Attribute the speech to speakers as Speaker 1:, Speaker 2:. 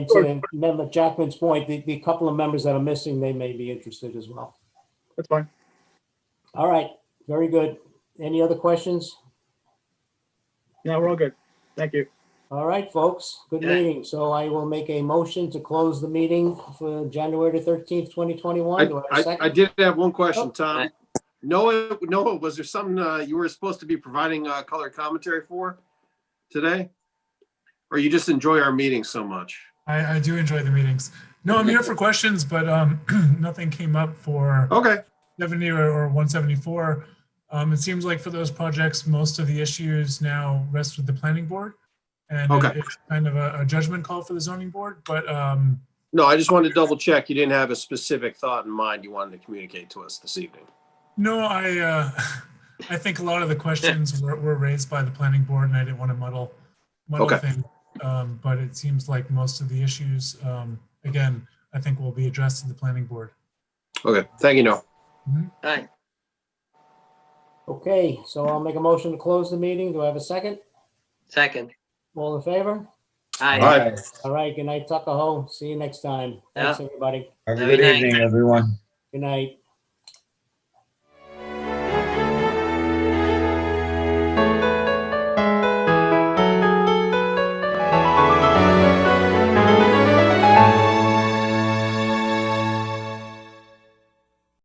Speaker 1: And remember Jackman's point, the, the couple of members that are missing, they may be interested as well.
Speaker 2: That's fine.
Speaker 1: All right, very good. Any other questions?
Speaker 2: No, we're all good. Thank you.
Speaker 1: All right, folks, good
Speaker 3: Yeah.
Speaker 1: meeting. So I will make a motion to close the meeting for January the thirteenth, twenty twenty-one.
Speaker 4: I,
Speaker 1: Do I have a
Speaker 4: I, I
Speaker 1: second?
Speaker 4: did have one question,
Speaker 1: Oh.
Speaker 4: Tom. Noah, Noah, was there something, uh, you were supposed to be providing, uh, color commentary for today? Or you just enjoy our meeting so much?
Speaker 5: I, I do enjoy the meetings. No, I'm here for questions, but um, nothing came up for
Speaker 4: Okay,
Speaker 5: 70 or or 174. Um, It seems like for those projects, most of the issues now rest with the planning board. And it-
Speaker 4: Okay.
Speaker 5: it's kind of a a judgment call for the zoning board, but um,
Speaker 4: no, I just wanted to double check. You didn't have a specific thought in mind you wanted to communicate to us this evening.
Speaker 5: no, I, uh, I think a lot of the questions were were raised by the planning board and I didn't want to muddle, muddle
Speaker 4: Okay.
Speaker 5: things. Um, But it seems like most of the issues, um, again, I think will be addressed in the planning board.
Speaker 4: Okay, thank you, Noah.
Speaker 3: All right.
Speaker 1: Okay, so I'll make a motion to close the meeting. Do I have a second?
Speaker 3: Second.
Speaker 1: All in favor?
Speaker 3: Aye.
Speaker 4: All right.
Speaker 1: All right, good night, Tuckahoe. See you next time. Thanks, everybody.
Speaker 6: Have a
Speaker 3: Very
Speaker 6: good
Speaker 3: nice.
Speaker 6: evening, everyone.
Speaker 1: Good night.